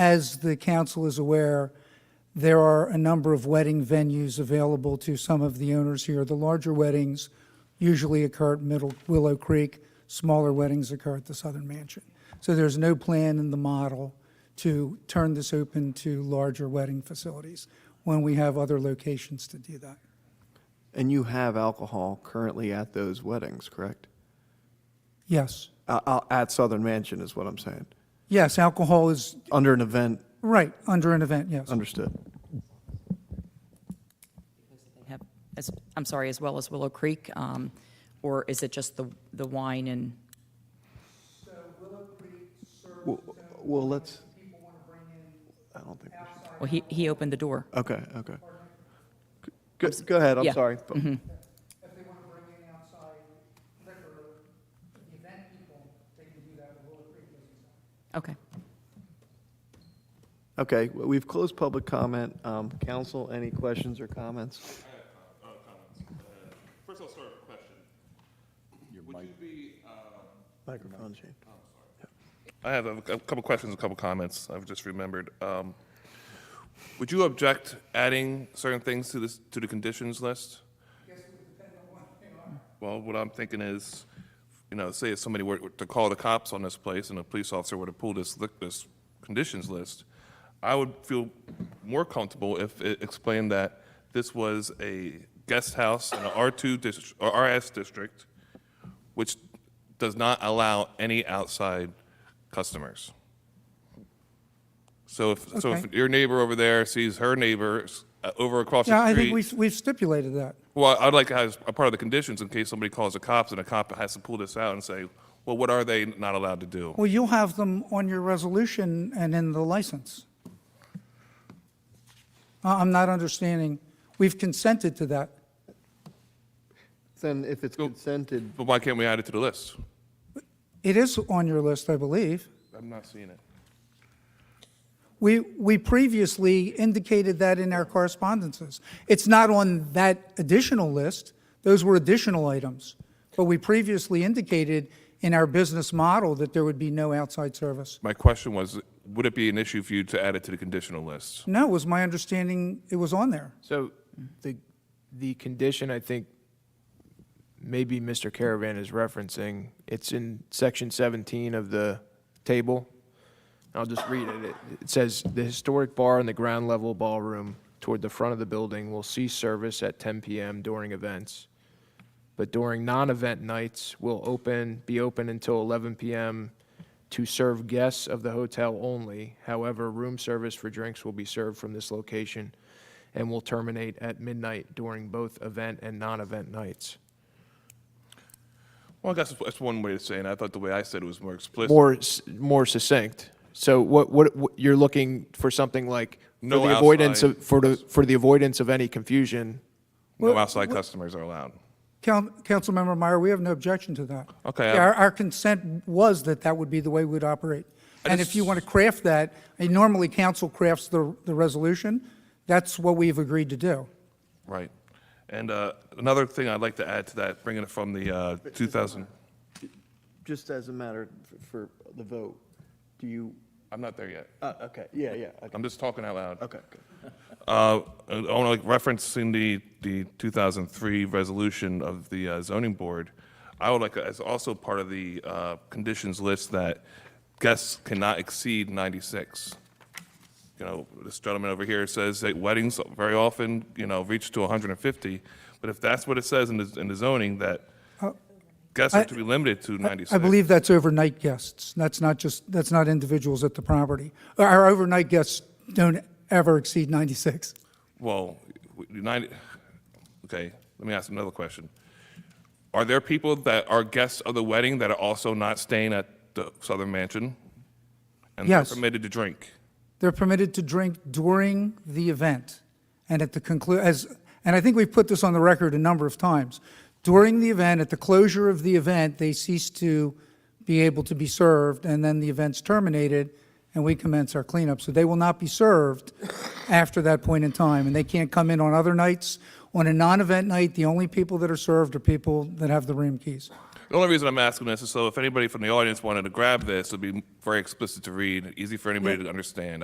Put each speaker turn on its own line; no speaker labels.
As the council is aware, there are a number of wedding venues available to some of the owners here. The larger weddings usually occur at Middle Willow Creek, smaller weddings occur at the Southern Mansion. So there's no plan in the model to turn this open to larger wedding facilities when we have other locations to do that.
And you have alcohol currently at those weddings, correct?
Yes.
Uh, uh, at Southern Mansion is what I'm saying.
Yes, alcohol is,
Under an event,
right, under an event, yes.
understood.
have, as, I'm sorry, as well as Willow Creek? um, Or is it just the, the wine and,
Well, well, let's. I don't think. we should-
well, he, he opened the door.
Okay, okay. Go, go ahead. I'm
Yeah.
sorry. but-
If they want to bring in outside liquor, the event people, they can do that with Willow Creek
Okay.
Okay, well, we've closed public comment. Um, council, any questions or comments?
First, I'll start with a question. Would you be, uh,
Microphone change.
I have a a couple questions, a couple comments I've just remembered. Um, Would you object adding certain things to this, to the conditions list? Well, what I'm thinking is, you know, say if somebody were to call the cops on this place and a police officer were to pull this, li- this conditions list, I would feel more comfortable if it explained that this was a guest house in an R2 district, or RS district, which does not allow any outside customers. So if, so if
Okay.
your neighbor over there sees her neighbor s- uh, over across the
Yeah,
street.
I think we've we've stipulated that.
Well, I'd like to have a part of the conditions in case somebody calls the cops and a cop has to pull this out and say, well, what are they not allowed to do?
Well, you'll have them on your resolution and in the license. I- I'm not understanding. We've consented to that.
Then if it's consented,
But why can't we add it to the list?
It is on your list, I believe.
I'm not seeing it.
We, we previously indicated that in our correspondences. It's not on that additional list. Those were additional items. But we previously indicated in our business model that there would be no outside service.
My question was, would it be an issue for you to add it to the conditional list?
No, it was my understanding it was on there.
So the, the condition, I think, maybe Mr. Caravan is referencing, it's in section 17 of the table. I'll just read it. It- It says, "The historic bar and the ground level ballroom toward the front of the building will cease service at 10 PM during events, but during non-event nights will open, be open until 11 PM to serve guests of the hotel only. However, room service for drinks will be served from this location and will terminate at midnight during both event and non-event nights.
Well, I guess that's- that's one way of saying it. I thought the way I said it was more explicit.
More, s- more succinct. So what, what, what- you're looking for something like, for
No
the avoidance
outside-
of, for the, for the avoidance of any confusion,
No outside customers are allowed.
Coun- Councilmember Meyer, we have no objection to that.
Okay, I-
Our, our consent was that that would be the way we'd operate. And if you want to craft that, I mean, normally council crafts the, the resolution. That's what we've agreed to do.
Right. And uh, another thing I'd like to add to that, bringing it from the uh, 2000,
just as a matter f- for the vote, do you,
I'm not there yet.
uh, okay, yeah, yeah, okay,
I'm just talking out loud.
okay. good.
Uh, I want to reference in the, the 2003 resolution of the uh, zoning board. I would like, as also part of the uh, conditions list, that guests cannot exceed 96. You know, this gentleman over here says that weddings very often, you know, reach to 150. But if that's what it says in the, in the zoning, that guests are to be limited to 96.
Uh, I believe that's overnight guests. That's not just, that's not individuals at the property. Our overnight guests don't ever exceed 96.
Well, United, okay, let me ask another question. Are there people that are guests of the wedding that are also not staying at the Southern Mansion? And they're
Yes.
permitted to drink?
They're permitted to drink during the event and at the conclu, as, and I think we've put this on the record a number of times. During the event, at the closure of the event, they cease to be able to be served, and then the event's terminated, and we commence our cleanup. So they will not be served after that point in time, and they can't come in on other nights. On a non-event night, the only people that are served are people that have the room keys.
The only reason I'm asking this is so if anybody from the audience wanted to grab this, it'd be very explicit to read, easy for anybody to understand.